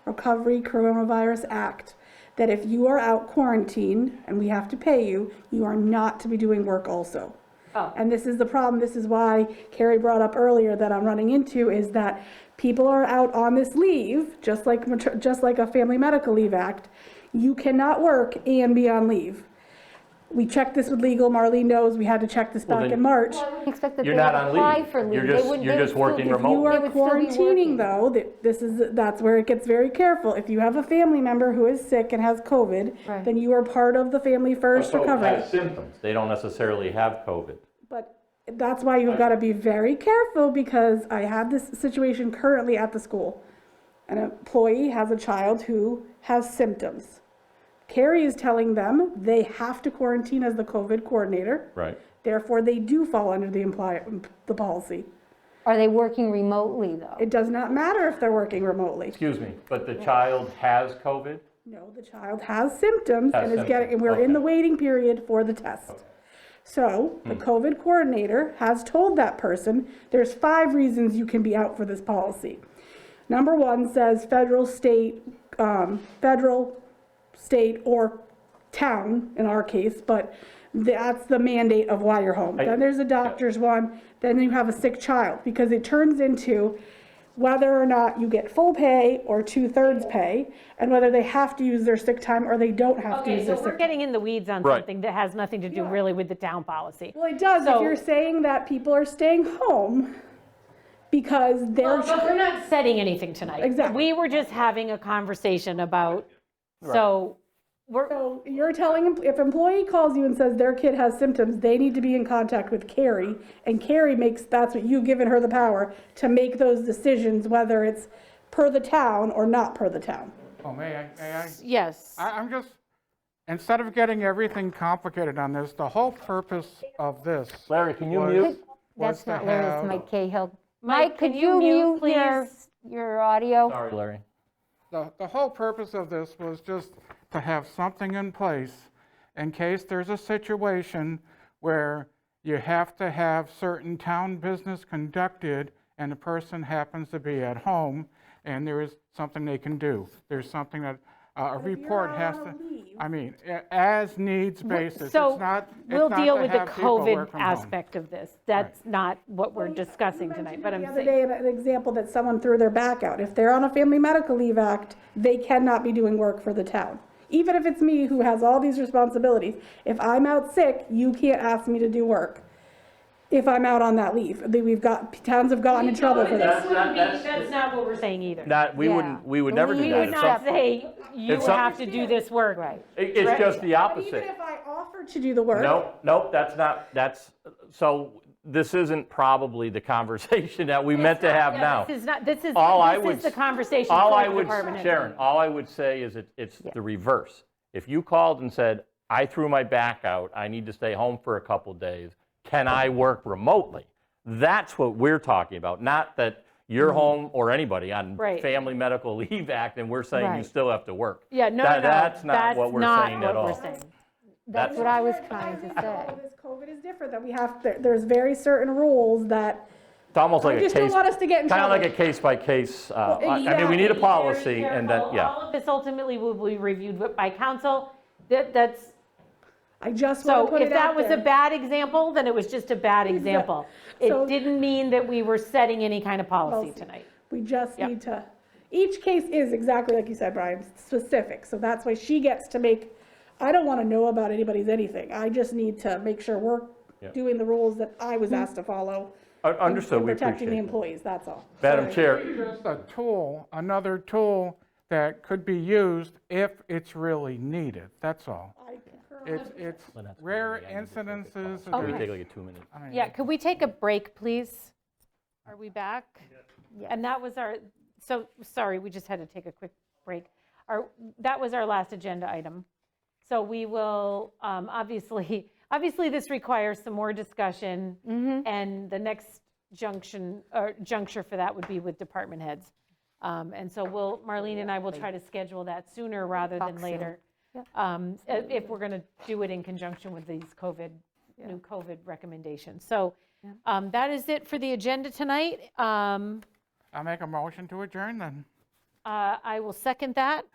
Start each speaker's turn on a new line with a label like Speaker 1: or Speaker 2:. Speaker 1: Recovery Coronavirus Act that if you are out quarantined and we have to pay you, you are not to be doing work also.
Speaker 2: Oh.
Speaker 1: And this is the problem, this is why Carrie brought up earlier that I'm running into, is that people are out on this leave, just like, mater- just like a Family Medical Leave Act. You cannot work and be on leave. We checked this with legal, Marlene knows, we had to check this
Speaker 3: Well,
Speaker 1: back
Speaker 3: then-
Speaker 1: in March.
Speaker 2: I wouldn't expect that they
Speaker 3: You're
Speaker 2: would
Speaker 3: not on
Speaker 2: apply
Speaker 3: leave.
Speaker 2: for leave.
Speaker 3: You're
Speaker 2: They
Speaker 3: just-
Speaker 2: would-
Speaker 3: you're
Speaker 2: they would
Speaker 3: just
Speaker 2: still
Speaker 3: working
Speaker 2: be-
Speaker 3: remote.
Speaker 1: You
Speaker 2: they
Speaker 1: are
Speaker 2: would still be
Speaker 1: quarantining
Speaker 2: working.
Speaker 1: though, that- this is, that's where it gets very careful. If you have a family member who is sick and has COVID,
Speaker 2: Right.
Speaker 1: then you are part of the Family First
Speaker 4: Oh,
Speaker 1: recovery.
Speaker 4: has Symptoms.
Speaker 3: They don't necessarily have COVID.
Speaker 1: But that's why you've got to be very careful because I have this situation currently at the school. An employee has a child who has symptoms. Carrie is telling them they have to quarantine as the COVID coordinator.
Speaker 3: Right.
Speaker 1: Therefore, they do fall under the imply, the policy.
Speaker 2: Are they working remotely, though?
Speaker 1: It does not matter if they're working remotely.
Speaker 3: Excuse me, but the child has COVID?
Speaker 1: No, the child has symptoms
Speaker 3: Has
Speaker 1: and is getting,
Speaker 3: symptoms,
Speaker 1: and we're in the
Speaker 3: okay. Hmm.
Speaker 1: waiting period for the test. So the COVID coordinator has told that person, there's five reasons you can be out for this policy. Number one says federal, state, um, federal, state, or town in our case, but that's the mandate of why you're home.
Speaker 3: I-
Speaker 1: Then there's a doctor's one, then you have a sick child, because it turns into whether or not you get full pay or two-thirds pay, and whether they have to use their sick time or they don't have to
Speaker 5: Okay,
Speaker 1: use
Speaker 5: so
Speaker 1: their
Speaker 5: we're
Speaker 1: sick.
Speaker 5: getting in the weeds on
Speaker 3: Right.
Speaker 5: something that has nothing to do
Speaker 1: Yeah.
Speaker 5: really with the town policy.
Speaker 1: Well, it does, if
Speaker 5: So-
Speaker 1: you're saying that people are staying home because they're,
Speaker 5: But we're not setting anything tonight.
Speaker 1: Exactly.
Speaker 5: We were just having a conversation about, so we're,
Speaker 1: so you're telling, em- if employee calls you and says their kid has symptoms, they need to be in contact with Carrie, and Carrie makes, that's what, you've given her the power to make those decisions, whether it's per the town or not per the town.
Speaker 6: Oh, may I, may I?
Speaker 5: yes.
Speaker 6: I, I'm just, instead of getting everything complicated on this, the whole purpose of this.
Speaker 3: Larry, can you
Speaker 6: was-
Speaker 3: mute?
Speaker 2: That's
Speaker 6: was to
Speaker 2: not Larry, it's
Speaker 6: have-
Speaker 2: Mike Cahill. Mike, could
Speaker 5: can
Speaker 2: you
Speaker 5: you mute,
Speaker 2: mute your,
Speaker 5: please?
Speaker 2: your audio?
Speaker 3: Sorry, Larry.
Speaker 6: The, the whole purpose of this was just to have something in place in case there's a situation where you have to have certain town business conducted and the person happens to be at home and there is something they can do. There's something that, uh, a report
Speaker 1: out
Speaker 6: has
Speaker 1: on
Speaker 6: to,
Speaker 1: leave-
Speaker 6: I mean, a- as needs basis. It's
Speaker 5: So
Speaker 6: not- it's
Speaker 5: we'll
Speaker 6: not
Speaker 5: deal
Speaker 6: to
Speaker 5: with the
Speaker 6: have people
Speaker 5: COVID
Speaker 6: work from home.
Speaker 5: aspect of this. That's not what we're discussing tonight, but I'm
Speaker 1: The other
Speaker 5: saying,
Speaker 1: day, an example that someone threw their back out, if they're on a Family Medical Leave Act, they cannot be doing work for the town. Even if it's me who has all these responsibilities, if I'm out sick, you can't ask me to do work. If I'm out on that leave, They- we've got, towns have gotten in trouble for this.
Speaker 5: This wouldn't be- that's not what we're saying either.
Speaker 3: Not, we
Speaker 2: Yeah.
Speaker 3: wouldn't, we would never do
Speaker 2: We
Speaker 3: that.
Speaker 2: would
Speaker 3: If
Speaker 5: Not
Speaker 3: some-
Speaker 5: say, you
Speaker 3: some-
Speaker 5: have to do this work.
Speaker 2: Right.
Speaker 3: it- It's just the
Speaker 1: Even
Speaker 3: opposite.
Speaker 1: if I offer to do the work.
Speaker 3: Nope, nope, that's not, that's, so this isn't probably the conversation that we meant to have now.
Speaker 5: This is not, this is,
Speaker 3: All I
Speaker 5: this
Speaker 3: would
Speaker 5: is the
Speaker 3: s-
Speaker 5: conversation
Speaker 3: All
Speaker 5: for
Speaker 3: I
Speaker 5: the
Speaker 3: would,
Speaker 5: department head.
Speaker 3: Sharon, all I would say is it, it's the reverse. If you called and said, I threw my back out, I need to stay home for a couple days, can I work remotely? That's what we're talking about, not that you're home or anybody on
Speaker 5: Mm-hmm. Right.
Speaker 3: Family Medical Leave Act and we're saying you
Speaker 2: Right.
Speaker 3: still have to work.
Speaker 5: Yeah, no, no,
Speaker 3: That-
Speaker 5: no.
Speaker 3: That's not what we're
Speaker 5: not
Speaker 3: saying at
Speaker 5: what we're
Speaker 3: all.
Speaker 5: saying.
Speaker 2: That's
Speaker 3: That's-
Speaker 2: what I was
Speaker 1: But
Speaker 2: trying to
Speaker 1: I think
Speaker 2: say.
Speaker 1: all this COVID is different, that we have, there- there's very certain rules that,
Speaker 3: It's almost like a case.
Speaker 1: just don't want us to get in
Speaker 3: Kind of like
Speaker 1: trouble.
Speaker 3: a case by case, uh, I I mean, we need a
Speaker 5: Exactly. Very
Speaker 3: policy and that,
Speaker 5: careful.
Speaker 3: yeah.
Speaker 5: All of this ultimately will be reviewed with- by council. That, that's,
Speaker 1: I just want to
Speaker 5: so
Speaker 1: put
Speaker 5: if
Speaker 1: it out
Speaker 5: that was a
Speaker 1: there.
Speaker 5: bad example, then it was just a bad example.
Speaker 1: So-
Speaker 5: It didn't mean that we were setting any kind of policy
Speaker 1: Policy.
Speaker 5: tonight.
Speaker 1: We just
Speaker 5: Yep.
Speaker 1: need to, each case is exactly like you said, Brian, specific, so that's why she gets to make, I don't wanna know about anybody's anything, I just need to make sure we're
Speaker 3: Yep.
Speaker 1: doing the rules that I was asked to follow.
Speaker 3: Un- Understood,
Speaker 1: and
Speaker 3: we
Speaker 1: Protecting the
Speaker 3: appreciate that.
Speaker 1: employees, that's all.
Speaker 3: Madam
Speaker 1: Sorry.
Speaker 3: Chair,
Speaker 6: just a tool, another tool that could be used if it's really needed, that's all.
Speaker 1: I concur.
Speaker 6: It's, it's
Speaker 3: that's
Speaker 6: rare
Speaker 3: gonna be the end of
Speaker 6: incidences.
Speaker 3: we can take like a two-minute.
Speaker 5: Yeah, could we take a break, please? Are we back?
Speaker 2: Yeah.
Speaker 5: And that was our, so, sorry, we just had to take a quick break. Our, that was our last agenda item. So we will, um, obviously, obviously, this requires some more discussion.
Speaker 2: Mm-hmm.
Speaker 5: And the next junction, or juncture for that would be with department heads. Um, And so we'll, Marlene and I will try to schedule that sooner rather than
Speaker 2: Talk soon.
Speaker 5: later. um, i- If we're going to do it in conjunction with these COVID, new COVID recommendations. So um, that is it for the agenda tonight. Um,
Speaker 6: I'll make a motion to adjourn then.
Speaker 5: Uh, I will second that.